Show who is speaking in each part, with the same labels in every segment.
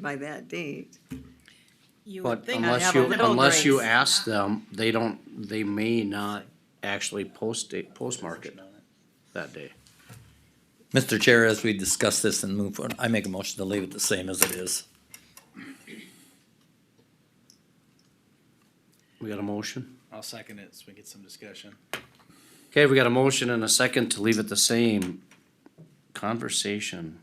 Speaker 1: by that date.
Speaker 2: You would
Speaker 3: But
Speaker 2: think.
Speaker 3: unless
Speaker 1: have
Speaker 3: you,
Speaker 1: a middle
Speaker 3: unless you
Speaker 1: grade.
Speaker 3: ask them, they don't, they may not actually post it, postmark it that day.
Speaker 4: Mr. Chair, as we discuss this and move forward, I make a motion to leave it the same as it is.
Speaker 3: We got a motion?
Speaker 5: I'll second it so we get some discussion.
Speaker 3: Okay, we got a motion and a second to leave it the same. Conversation.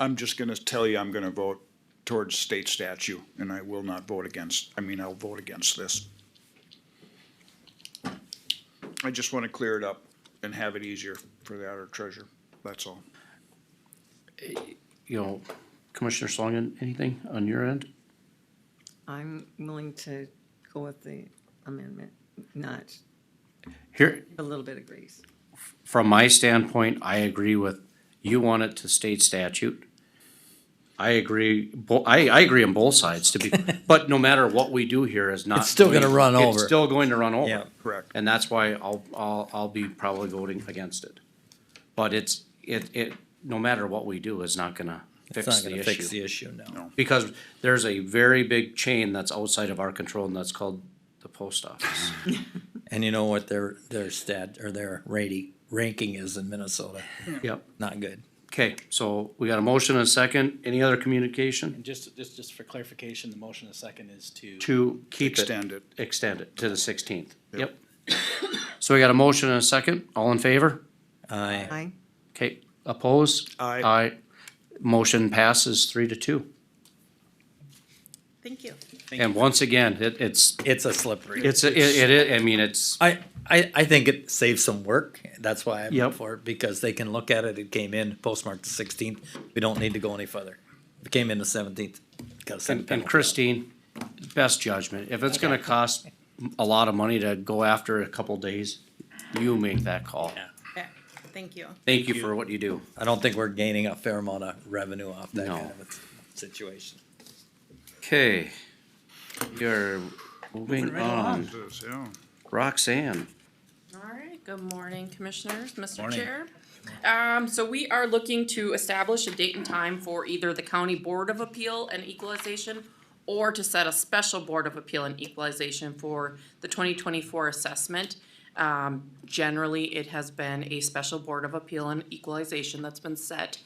Speaker 6: I'm just gonna tell you, I'm gonna vote towards state statute, and I will not vote against, I mean, I'll vote against this. I just wanna clear it up and have it easier for the outer treasurer, that's all.
Speaker 3: You know, Commissioner Schlangen, anything on your end?
Speaker 1: I'm willing to go with the amendment, not
Speaker 3: Here,
Speaker 1: a little bit of grace.
Speaker 3: from my standpoint, I agree with, you want it to state statute. I agree, bo- I, I agree on both sides to be, but no matter what we do here is not.
Speaker 4: It's still gonna
Speaker 3: going-
Speaker 4: run
Speaker 3: It's
Speaker 4: over.
Speaker 3: still going to run
Speaker 4: Yeah.
Speaker 3: over.
Speaker 6: Correct.
Speaker 3: And that's why I'll, I'll, I'll be probably voting against it. But it's, it, it, no matter what we do, is not gonna
Speaker 4: It's
Speaker 3: fix
Speaker 4: not
Speaker 3: the
Speaker 4: gonna fix
Speaker 3: issue.
Speaker 4: the issue, no.
Speaker 3: Because there's a very big chain that's outside of our control and that's called the post office.
Speaker 4: And you know what their, their stat, or their rating, ranking is in Minnesota?
Speaker 3: Yep.
Speaker 4: Not good.
Speaker 3: Okay, so we got a motion and a second. Any other communication?
Speaker 5: And just, just, just for clarification, the motion in a second is to.
Speaker 3: To keep it.
Speaker 6: Extend it.
Speaker 3: Extend it to the sixteenth. Yep.
Speaker 6: Yep.
Speaker 3: So we got a motion and a second. All in favor?
Speaker 4: Aye.
Speaker 1: I,
Speaker 3: Okay, opposed?
Speaker 6: Aye.
Speaker 3: Aye. Motion passes three to two.
Speaker 2: Thank you.
Speaker 5: Thank
Speaker 3: And
Speaker 5: you.
Speaker 3: once again, it, it's,
Speaker 4: It's a slippery.
Speaker 3: it's, it, it, I mean, it's,
Speaker 4: I, I, I think it saves some work. That's why I'm
Speaker 3: Yep.
Speaker 4: up for it, because they can look at it. It came in postmarked the sixteenth. We don't need to go any further. If it came in the seventeenth, gotta send a
Speaker 3: and
Speaker 4: penalty.
Speaker 3: Christine, best judgment. If it's gonna cost a lot of money to go after a couple days, you make that call.
Speaker 4: Yeah.
Speaker 2: Okay, Thank you.
Speaker 3: Thank you for what you do.
Speaker 4: I don't think we're gaining a fair amount of revenue off that
Speaker 3: No.
Speaker 4: kind of a situation.
Speaker 3: Okay, you're moving on.
Speaker 6: Yes, yeah.
Speaker 3: Roxanne.
Speaker 7: All right, good morning, Commissioners, Mr.
Speaker 5: Morning.
Speaker 7: Chair. Um, so we are looking to establish a date and time for either the County Board of Appeal and Equalization or to set a special Board of Appeal and Equalization for the twenty twenty-four assessment. Um, generally, it has been a special Board of Appeal and Equalization that's been set.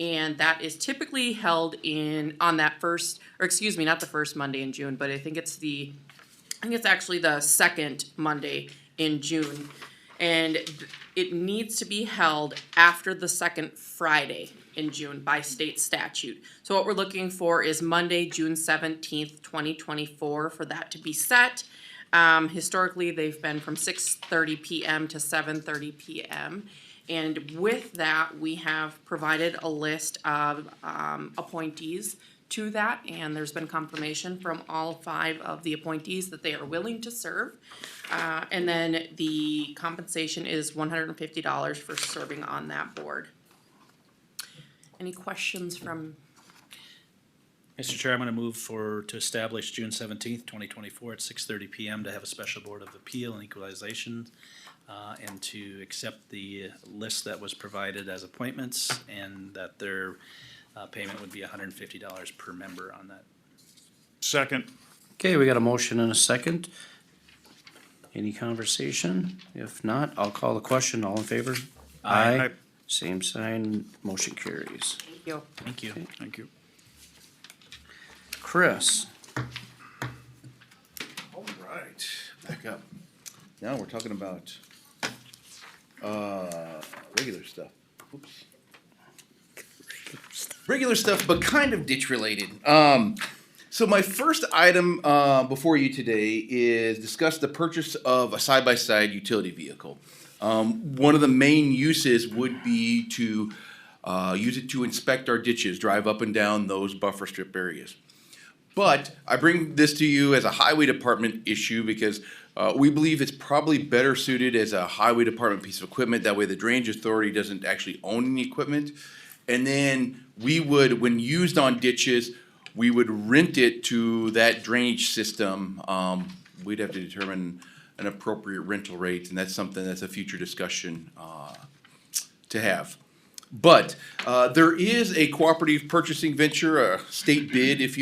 Speaker 7: And that is typically held in, on that first, or excuse me, not the first Monday in June, but I think it's the I think it's actually the second Monday in June. And it needs to be held after the second Friday in June by state statute. So what we're looking for is Monday, June seventeenth, twenty twenty-four, for that to be set. Um, historically, they've been from six thirty PM to seven thirty PM. And with that, we have provided a list of um, appointees to that, and there's been confirmation from all five of the appointees that they are willing to serve. Uh, And then the compensation is one hundred and fifty dollars for serving on that board. Any questions from
Speaker 5: Mr. Chair, I'm gonna move for, to establish June seventeenth, twenty twenty-four at six thirty PM to have a special board of appeal and equalization. Uh, and to accept the list that was provided as appointments and that their, uh, payment would be hundred and fifty dollars per member on that.
Speaker 6: Second.
Speaker 3: Okay, we got a motion and a second. Any conversation? If not, I'll call the question. All in favor? Aye. Same sign, motion carries.
Speaker 7: you?
Speaker 5: Thank you.
Speaker 6: Thank you.
Speaker 3: Chris,
Speaker 8: All right, back up. Now we're talking about, uh, regular stuff. Oops. Regular stuff, but kind of ditch related. Um, so my first item, uh, before you today is discuss the purchase of a side-by-side utility vehicle. Um, one of the main uses would be to, uh, use it to inspect our ditches, drive up and down those buffer strip areas. But I bring this to you as a highway department issue because uh, we believe it's probably better suited as a highway department piece of equipment. That way, the drainage authority doesn't actually own any equipment. And then we would, when used on ditches, we would rent it to that drainage system. Um, we'd have to determine an appropriate rental rate, and that's something that's a future discussion uh, to have. But uh, there is a cooperative purchasing venture, a state bid, if you